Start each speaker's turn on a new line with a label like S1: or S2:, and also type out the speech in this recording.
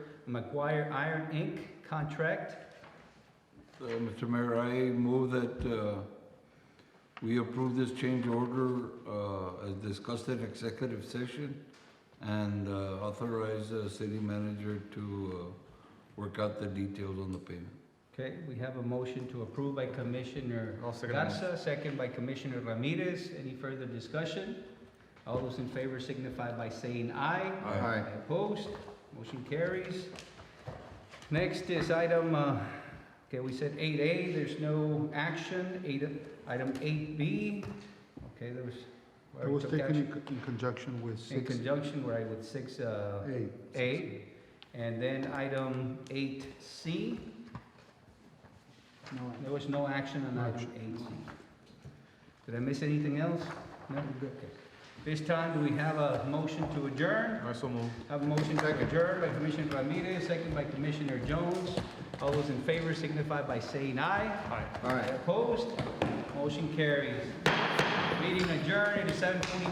S1: McGuire Iron Inc. contract.
S2: Uh, Mr. Mayor, I move that uh, we approve this change order uh, as discussed in executive session and uh, authorize the city manager to uh, work out the details on the payment.
S1: Okay, we have a motion to approve by Commissioner
S3: I'll second the
S1: Garza, second by Commissioner Ramirez. Any further discussion? All those in favor signify by saying aye.
S3: Aye.
S1: Opposed, motion carries. Next is item, uh, okay, we said eight A, there's no action. Eight, item eight B, okay, there was.
S4: It was
S1: took
S4: taken in
S1: action
S4: co- in conjunction with
S1: In
S4: six
S1: conjunction, right, with six, uh,
S4: A.
S1: A. And then item eight C,
S4: No,
S1: there was no action on
S4: No
S1: item
S4: action.
S1: eight C. Did I miss anything else? No? This time, do we have a motion to adjourn?
S3: I so move.
S1: Have a motion to adjourn by Commissioner Ramirez, second by Commissioner Jones. All those in favor signify by saying aye.
S3: Aye.
S4: All right.
S1: Opposed? Motion carries. Meeting adjourned at seven twenty.